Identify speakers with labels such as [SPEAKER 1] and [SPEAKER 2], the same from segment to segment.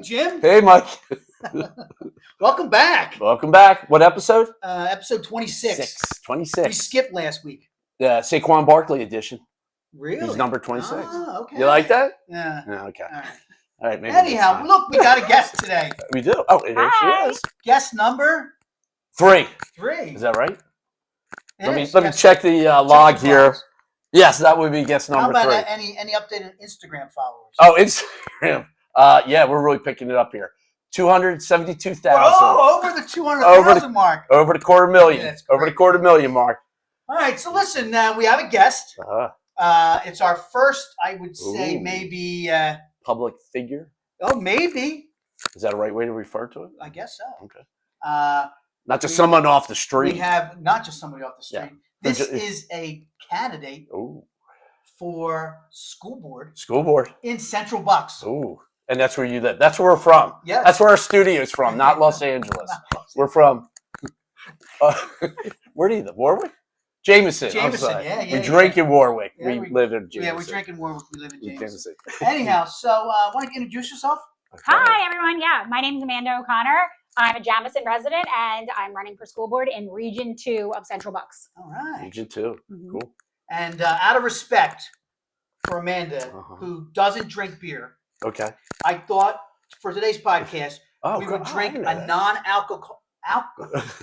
[SPEAKER 1] Jim.
[SPEAKER 2] Hey, Mike.
[SPEAKER 1] Welcome back.
[SPEAKER 2] Welcome back. What episode?
[SPEAKER 1] Uh, episode 26.
[SPEAKER 2] Six.
[SPEAKER 1] We
[SPEAKER 2] 26.
[SPEAKER 1] skipped last week.
[SPEAKER 2] Yeah, Saquon Barkley edition.
[SPEAKER 1] Really?
[SPEAKER 2] He's number 26.
[SPEAKER 1] Ah, okay.
[SPEAKER 2] You like that?
[SPEAKER 1] Yeah.
[SPEAKER 2] No, okay.
[SPEAKER 1] All right.
[SPEAKER 2] All right. Maybe next
[SPEAKER 1] Anyhow,
[SPEAKER 2] time.
[SPEAKER 1] look, we got a guest today.
[SPEAKER 2] we do. Oh, there
[SPEAKER 3] Hi.
[SPEAKER 2] she is.
[SPEAKER 1] Guest number
[SPEAKER 2] Three.
[SPEAKER 1] three.
[SPEAKER 2] Is that right? Let me
[SPEAKER 1] Yes,
[SPEAKER 2] let me
[SPEAKER 1] guest-
[SPEAKER 2] check the uh,
[SPEAKER 1] check
[SPEAKER 2] log
[SPEAKER 1] the
[SPEAKER 2] here.
[SPEAKER 1] files.
[SPEAKER 2] Yes, that would be guess
[SPEAKER 1] How
[SPEAKER 2] number
[SPEAKER 1] about
[SPEAKER 2] three.
[SPEAKER 1] uh, any any update on Instagram followers?
[SPEAKER 2] Oh, Instagram. Uh, yeah, we're really picking it up here. Two hundred seventy-two thousand
[SPEAKER 1] Whoa, over the 200,000 mark.
[SPEAKER 2] over the quarter million.
[SPEAKER 1] Yeah, that's
[SPEAKER 2] over the
[SPEAKER 1] great.
[SPEAKER 2] quarter million mark.
[SPEAKER 1] All right, so listen, uh, we have a guest.
[SPEAKER 2] Uh,
[SPEAKER 1] Uh, it's our first, I would say,
[SPEAKER 2] Ooh.
[SPEAKER 1] maybe, uh,
[SPEAKER 2] public figure.
[SPEAKER 1] oh, maybe,
[SPEAKER 2] Is that a right way to refer to it?
[SPEAKER 1] I guess so.
[SPEAKER 2] Okay.
[SPEAKER 1] Uh,
[SPEAKER 2] Not just
[SPEAKER 1] We-
[SPEAKER 2] someone off the
[SPEAKER 1] we
[SPEAKER 2] street.
[SPEAKER 1] have not just somebody off the street.
[SPEAKER 2] Yeah.
[SPEAKER 1] This
[SPEAKER 2] Ju-
[SPEAKER 1] is a candidate
[SPEAKER 2] Ooh,
[SPEAKER 1] for school board
[SPEAKER 2] school board.
[SPEAKER 1] in Central Bucks.
[SPEAKER 2] Ooh, and that's where you live. That's where we're from.
[SPEAKER 1] Yes.
[SPEAKER 2] That's where our studio's from, not Los Angeles. We're from. Uh, where do you live? Warwick? Jameson. I'm
[SPEAKER 1] Jameson,
[SPEAKER 2] sorry.
[SPEAKER 1] yeah, yeah,
[SPEAKER 2] we
[SPEAKER 1] yeah.
[SPEAKER 2] drink in Warwick.
[SPEAKER 1] Yeah,
[SPEAKER 2] we,
[SPEAKER 1] we-
[SPEAKER 2] live in Jameson.
[SPEAKER 1] yeah, we're drinking Warwick. We live in
[SPEAKER 2] In
[SPEAKER 1] James.
[SPEAKER 2] Jameson.
[SPEAKER 1] Anyhow, so uh, want to introduce yourself?
[SPEAKER 2] Okay.
[SPEAKER 3] Hi, everyone. Yeah, my name's Amanda O'Connor. I'm a Jamison resident and I'm running for school board in Region 2 of Central Bucks.
[SPEAKER 1] All right.
[SPEAKER 2] Region two.
[SPEAKER 1] Mm-hmm.
[SPEAKER 3] Mhm.
[SPEAKER 2] Cool.
[SPEAKER 1] And uh, out of respect for Amanda,
[SPEAKER 2] Uh-huh.
[SPEAKER 1] who doesn't drink beer,
[SPEAKER 2] Okay.
[SPEAKER 1] I thought for today's podcast
[SPEAKER 2] Oh,
[SPEAKER 1] we
[SPEAKER 2] cool.
[SPEAKER 1] would
[SPEAKER 2] Oh, I
[SPEAKER 1] drink
[SPEAKER 2] didn't know
[SPEAKER 1] a
[SPEAKER 2] that.
[SPEAKER 1] non-alcohol al-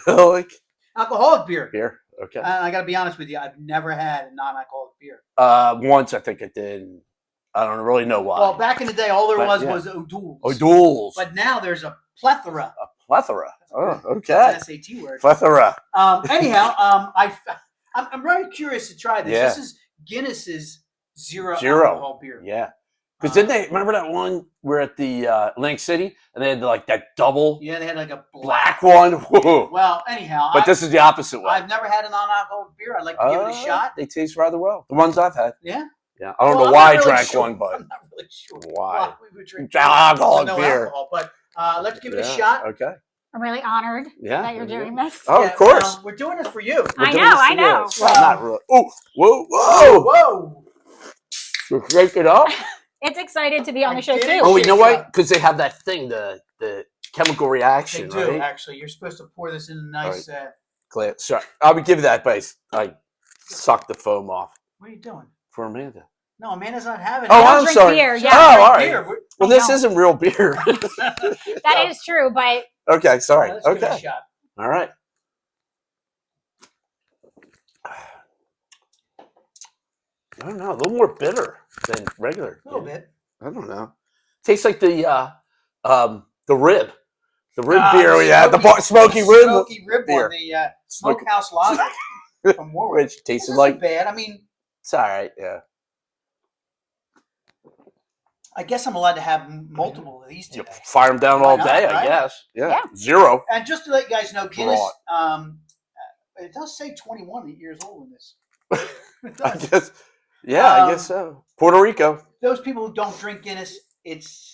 [SPEAKER 2] Alcoholic
[SPEAKER 1] alcoholic beer.
[SPEAKER 2] beer. Okay.
[SPEAKER 1] And I got to be honest with you, I've never had a non-alcoholic beer.
[SPEAKER 2] Uh, once I think I did. and I don't really know why.
[SPEAKER 1] Well, back in the day, all there
[SPEAKER 2] But,
[SPEAKER 1] was
[SPEAKER 2] yeah.
[SPEAKER 1] was O'Doul's.
[SPEAKER 2] oh, duels.
[SPEAKER 1] But now there's a plethora.
[SPEAKER 2] a plethora. Oh,
[SPEAKER 1] That's
[SPEAKER 2] okay.
[SPEAKER 1] That's an SAT word.
[SPEAKER 2] Plethora.
[SPEAKER 1] Um, anyhow, um, I, f- I'm, I'm very curious to try this.
[SPEAKER 2] Yeah.
[SPEAKER 1] This is Guinness's zero,
[SPEAKER 2] Zero.
[SPEAKER 1] alcohol beer.
[SPEAKER 2] Yeah. Because
[SPEAKER 1] Uh,
[SPEAKER 2] didn't they remember that one we're at the uh, Link City and they had like that double
[SPEAKER 1] Yeah, they had like a black.
[SPEAKER 2] black one? Whoa.
[SPEAKER 1] Well, anyhow,
[SPEAKER 2] But
[SPEAKER 1] I,
[SPEAKER 2] this is the opposite one.
[SPEAKER 1] I've never had a non-alcoholic beer. I'd like to give it
[SPEAKER 2] Uh,
[SPEAKER 1] a shot.
[SPEAKER 2] They taste rather well. The ones I've had.
[SPEAKER 1] Yeah.
[SPEAKER 2] Yeah. I don't
[SPEAKER 1] Well,
[SPEAKER 2] know
[SPEAKER 1] I'm
[SPEAKER 2] why
[SPEAKER 1] not
[SPEAKER 2] I
[SPEAKER 1] really
[SPEAKER 2] drank
[SPEAKER 1] sure-
[SPEAKER 2] one, but
[SPEAKER 1] I'm not really sure
[SPEAKER 2] why?
[SPEAKER 1] we would drink
[SPEAKER 2] It's alcoholic
[SPEAKER 1] no
[SPEAKER 2] beer.
[SPEAKER 1] alcohol, but uh, let's give it
[SPEAKER 2] Yeah,
[SPEAKER 1] a shot.
[SPEAKER 2] Okay.
[SPEAKER 3] I'm really honored
[SPEAKER 2] Yeah.
[SPEAKER 3] that you're
[SPEAKER 2] there you
[SPEAKER 3] doing this.
[SPEAKER 2] go. Oh,
[SPEAKER 1] Yeah,
[SPEAKER 2] of course.
[SPEAKER 1] um, we're doing it for you.
[SPEAKER 2] We're
[SPEAKER 3] I
[SPEAKER 2] doing
[SPEAKER 3] know,
[SPEAKER 2] this
[SPEAKER 3] I
[SPEAKER 2] together.
[SPEAKER 3] know.
[SPEAKER 2] It's not really. Oh, whoa, whoa.
[SPEAKER 1] Whoa!
[SPEAKER 2] You shake it up.
[SPEAKER 3] It's excited to be on
[SPEAKER 1] I
[SPEAKER 3] the show,
[SPEAKER 1] did
[SPEAKER 3] too.
[SPEAKER 2] Oh, you know
[SPEAKER 1] shake it
[SPEAKER 2] what?
[SPEAKER 1] up.
[SPEAKER 2] Because they have that thing, the the chemical
[SPEAKER 1] They
[SPEAKER 2] reaction,
[SPEAKER 1] do
[SPEAKER 2] right?
[SPEAKER 1] actually. You're supposed to pour this in a nice. Uh,
[SPEAKER 2] Gla- Sorry, I would give that, but I s- I sucked the foam off
[SPEAKER 1] what are you doing?
[SPEAKER 2] for Amanda.
[SPEAKER 1] No, Amanda's not having.
[SPEAKER 2] Oh,
[SPEAKER 1] it.
[SPEAKER 3] I don't
[SPEAKER 2] I'm
[SPEAKER 3] drink
[SPEAKER 2] sorry.
[SPEAKER 3] beer. Yeah,
[SPEAKER 2] Oh, all right.
[SPEAKER 1] Beer. We're-
[SPEAKER 2] Well,
[SPEAKER 3] I
[SPEAKER 2] this
[SPEAKER 3] don't.
[SPEAKER 2] isn't real beer.
[SPEAKER 1] oh,
[SPEAKER 3] That is true, but
[SPEAKER 2] okay, sorry.
[SPEAKER 1] Let's give it a
[SPEAKER 2] Okay,
[SPEAKER 1] shot.
[SPEAKER 2] all right. I don't know. A little more bitter than regular.
[SPEAKER 1] A little
[SPEAKER 2] yeah.
[SPEAKER 1] bit.
[SPEAKER 2] I don't know. Tastes like the uh, um, the rib, the rib
[SPEAKER 1] Ah,
[SPEAKER 2] beer we had, the bar- smoky rib,
[SPEAKER 1] Smoky rib
[SPEAKER 2] beer.
[SPEAKER 1] on the uh,
[SPEAKER 2] smoky,
[SPEAKER 1] smokehouse lager from Warwick.
[SPEAKER 2] which
[SPEAKER 1] This
[SPEAKER 2] tasted
[SPEAKER 1] isn't
[SPEAKER 2] like
[SPEAKER 1] bad. I mean,
[SPEAKER 2] it's all right. Yeah.
[SPEAKER 1] I guess I'm allowed to have m- multiple of these
[SPEAKER 2] You
[SPEAKER 1] today.
[SPEAKER 2] fire them down
[SPEAKER 1] Why
[SPEAKER 2] all
[SPEAKER 1] not,
[SPEAKER 2] day, I
[SPEAKER 1] right?
[SPEAKER 2] guess. Yeah.
[SPEAKER 3] Yeah.
[SPEAKER 2] Zero.
[SPEAKER 1] And just to let you guys know, Guinness.
[SPEAKER 2] Right.
[SPEAKER 1] Um, uh, it does say 21 years old in this. It
[SPEAKER 2] I
[SPEAKER 1] does.
[SPEAKER 2] guess. Yeah, I
[SPEAKER 1] Um,
[SPEAKER 2] guess so. Puerto Rico.
[SPEAKER 1] Those people who don't drink Guinness, it's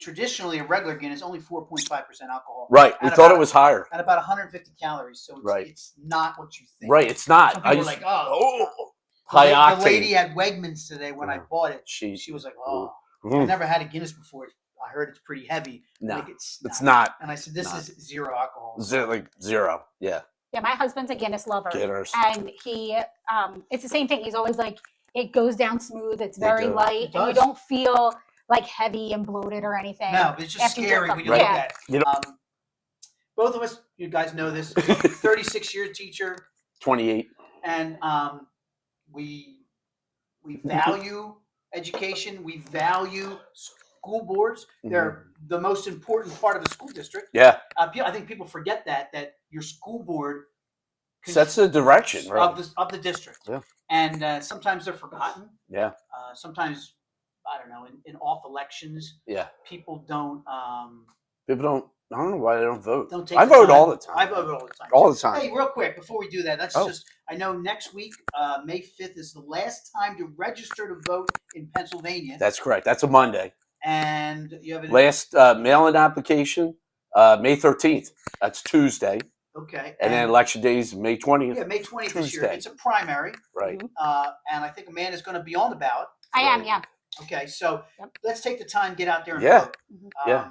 [SPEAKER 1] traditionally a regular Guinness, only 4.5% alcohol.
[SPEAKER 2] Right. We
[SPEAKER 1] out of
[SPEAKER 2] thought it
[SPEAKER 1] our-
[SPEAKER 2] was higher.
[SPEAKER 1] At about 150 calories, so it's,
[SPEAKER 2] Right.
[SPEAKER 1] it's not what you think.
[SPEAKER 2] Right. It's not.
[SPEAKER 1] Some
[SPEAKER 2] I
[SPEAKER 1] people are
[SPEAKER 2] just.
[SPEAKER 1] like, oh,
[SPEAKER 2] oh.
[SPEAKER 1] The
[SPEAKER 2] High
[SPEAKER 1] la-
[SPEAKER 2] octane.
[SPEAKER 1] The lady at Wegmans today when I
[SPEAKER 2] Yeah.
[SPEAKER 1] bought it,
[SPEAKER 2] She-
[SPEAKER 1] she was like, "Oh, I've
[SPEAKER 2] Mm,
[SPEAKER 1] never had a Guinness before. I heard it's pretty heavy.
[SPEAKER 2] no,
[SPEAKER 1] Like, it's
[SPEAKER 2] it's not.
[SPEAKER 1] And I said, "This
[SPEAKER 2] not.
[SPEAKER 1] is zero alcohol."
[SPEAKER 2] Zero, like zero. Yeah.
[SPEAKER 3] yeah, my husband's a Guinness lover.
[SPEAKER 2] Guinness.
[SPEAKER 3] And he, um, it's the same thing. He's always like, it goes down smooth. It's
[SPEAKER 2] They
[SPEAKER 3] very
[SPEAKER 2] do.
[SPEAKER 3] light.
[SPEAKER 1] It
[SPEAKER 3] And you
[SPEAKER 1] does.
[SPEAKER 3] don't feel like heavy and bloated or anything.
[SPEAKER 1] No, it's just
[SPEAKER 3] After you
[SPEAKER 1] scary
[SPEAKER 3] drink
[SPEAKER 1] when
[SPEAKER 3] them.
[SPEAKER 1] you look
[SPEAKER 3] Yeah.
[SPEAKER 1] at.
[SPEAKER 2] You
[SPEAKER 1] It. Um, both of us, you guys know this. Thirty-six year teacher,
[SPEAKER 2] 28.
[SPEAKER 1] and um, we we value education. We value school boards.
[SPEAKER 2] Mm-hmm.
[SPEAKER 1] They're the most important part of the school district.
[SPEAKER 2] Yeah.
[SPEAKER 1] Uh, pe- I think people forget that that your school board cons-
[SPEAKER 2] Sets the direction,
[SPEAKER 1] of
[SPEAKER 2] right?
[SPEAKER 1] the of the district.
[SPEAKER 2] Yeah.
[SPEAKER 1] And uh, sometimes they're forgotten.
[SPEAKER 2] Yeah.
[SPEAKER 1] Uh, sometimes I don't know. In, in off elections,
[SPEAKER 2] Yeah.
[SPEAKER 1] people don't um,
[SPEAKER 2] People don't. I don't know why they don't vote.
[SPEAKER 1] don't take.
[SPEAKER 2] I
[SPEAKER 1] the
[SPEAKER 2] vote
[SPEAKER 1] time.
[SPEAKER 2] all the time.
[SPEAKER 1] I vote all the time.
[SPEAKER 2] all the time.
[SPEAKER 1] Hey, real quick before we do that, let's
[SPEAKER 2] Oh.
[SPEAKER 1] just. I know next week, uh, May fifth, is the last time to register to vote in Pennsylvania,
[SPEAKER 2] That's correct. That's a Monday.
[SPEAKER 1] and you have an
[SPEAKER 2] Last uh, mail-in application, uh, May 13th. That's Tuesday,
[SPEAKER 1] okay,
[SPEAKER 2] and then election day is May 20th.
[SPEAKER 1] yeah, May twentieth this year.
[SPEAKER 2] Tuesday.
[SPEAKER 1] It's a primary,
[SPEAKER 2] Right.
[SPEAKER 1] uh, and I think a man is going to be on the ballot.
[SPEAKER 3] I am,
[SPEAKER 2] Right.
[SPEAKER 3] yeah.
[SPEAKER 1] Okay, so
[SPEAKER 3] Yep.
[SPEAKER 1] let's take the time, get out there and
[SPEAKER 2] Yeah.
[SPEAKER 1] vote. Um,
[SPEAKER 3] Mhm.
[SPEAKER 2] Yeah.